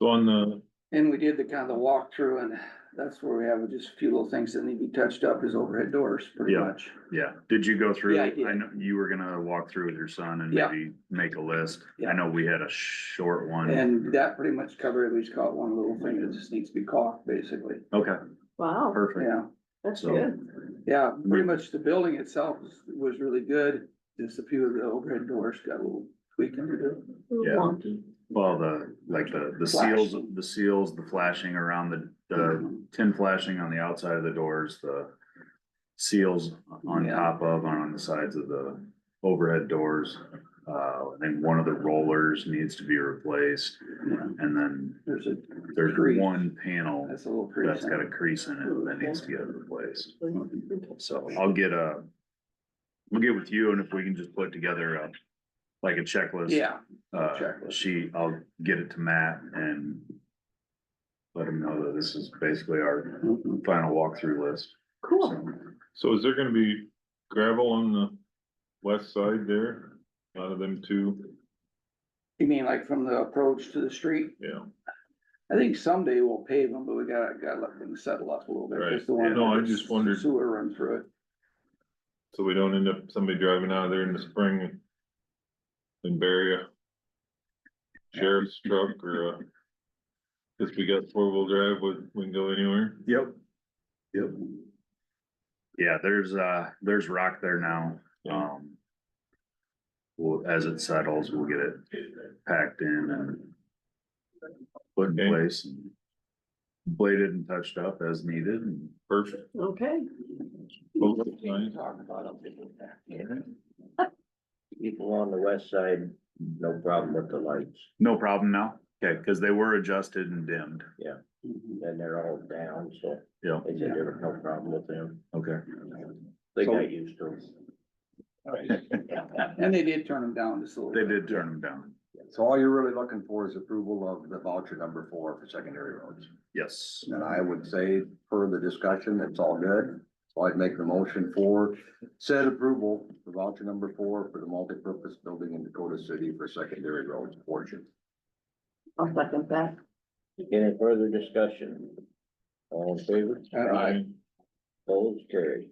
So on the, And we did the kind of the walkthrough and that's where we have just a few little things that need to be touched up is overhead doors pretty Yeah. much. yeah, did you go through? Yeah, I it? did. I know you were gonna walk through with your son and Yeah. maybe make a list. Yeah. I know we had a short one. And that pretty much covered, it. we just caught one little thing that just needs to be caught, basically, Okay, Wow, perfect. yeah. that's So- good. Yeah, pretty much the building itself was- was really good, just a few of the overhead doors got a little tweaking to do. Little Yeah. wonky. Well, the, like the, the seals, Flashing. the seals, the flashing around the, Mm-hmm. the tin flashing on the outside of the doors, the seals on Yeah. top of, on the sides of the overhead doors. Uh, and one of the rollers needs to be replaced, Yeah, and then There's a, there's Crease. one panel that's a little that's crease. in got a it. crease in it that needs to get replaced. Okay. So I'll get a, we'll get with you and if we can just put together a, like a checklist. Yeah, Uh, Checklist. she, I'll get it to Matt and let him know that this is basically our mhm. final walkthrough list. Cool. So, So is there gonna be gravel on the west side there, out of them two, you mean like from the approach to the street? yeah, I think someday we'll pave them, but we gotta, gotta let them settle up a little bit. Right. Just the one No, I that just wondered- Sewer run through it. so we don't end up somebody driving out of there in the spring? And bury a sheriff's truck or a, cause we got four-wheel drive, we, we can go anywhere, Yep. Yep. Yeah, there's, uh, there's rock there now, um. Well, as it settles, we'll get it packed in and. Put in Okay. place and bladed and touched up as needed and. perfect. Okay, Both sides. Talk about it. People on the west side, no problem with the lights, No problem now, okay, cause they were adjusted and dimmed, Mm-hmm. Mhm. then they're all down, so yeah, they said there was no problem with them. okay. They So- got used to it. And they did turn them down just a little. They bit. did turn them down, So all you're really looking for is approval of the voucher number four for secondary roads. yes, And I would say per the discussion, it's all good. So I'd make the motion for said approval for voucher number four for the multipurpose building in Dakota City for secondary roads portion. I'll second that. Any further discussion? All in favor? Aye. Opposed, carried.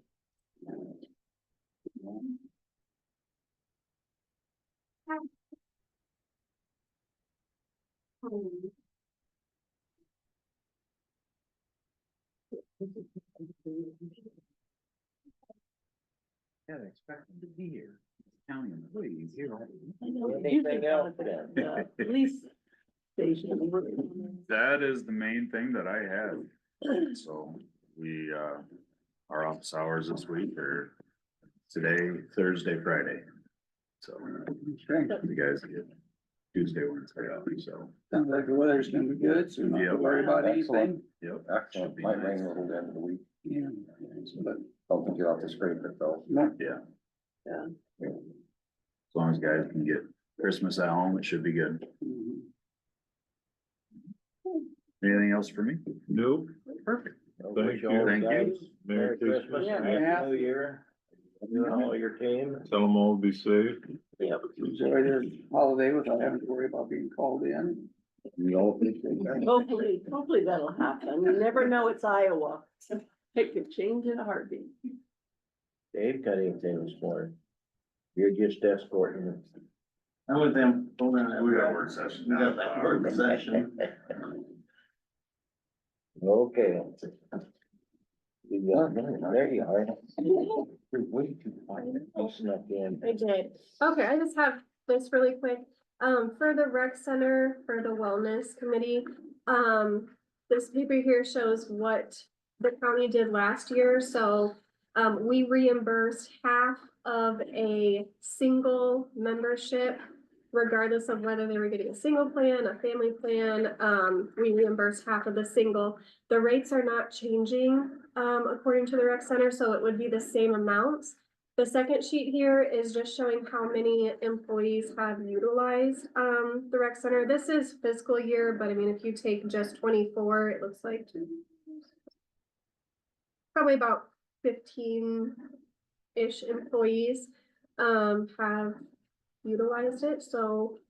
Yeah, they expect them to be here. County employees here. Anything else then? The Police station. That is the main thing that I have, so we, uh, our office hours this week are today, Thursday, Friday. So Okay. you guys get Tuesday, Wednesday, off, so, Sounds like the weather's gonna be good, so we don't have Yeah. to worry about Excellent. anything. yep. Should Excellent. be Might rain a nice. little bit in the week. Yeah. But, Don't think you'll have to scrape it though. no, As long as guys can get Christmas at home, it should be good. mhm. Anything else for me? Nope, Perfect. I wish you. all the Thank you. guys Merry Merry Christmas, Christmas. and Yeah. Happy New Year. You and all your team. tell them all to be safe, Yep. Enjoy the holiday without having to worry about being called in. We all appreciate that. Hopefully, hopefully that'll happen. You never know, it's Iowa. It could change in a heartbeat. Dave got anything this morning? You're just escorting them. I was in, hold on, we We got got, work session. we got that work session. Okay. You got me. There you are. You're way too quiet. I snuck in. I did. Okay, I just have this really quick. Um, for the rec center, for the wellness committee, um, this paper here shows what the county did last year, so um, we reimbursed half of a single membership regardless of whether they were getting a single plan, a family plan, um, we reimbursed half of the single. The rates are not changing, um, according to the rec center, so it would be the same amounts. The second sheet here is just showing how many employees have utilized um the rec center. This is fiscal year, but I mean, if you take just twenty-four, it looks like probably about fifteen-ish employees um have utilized it, so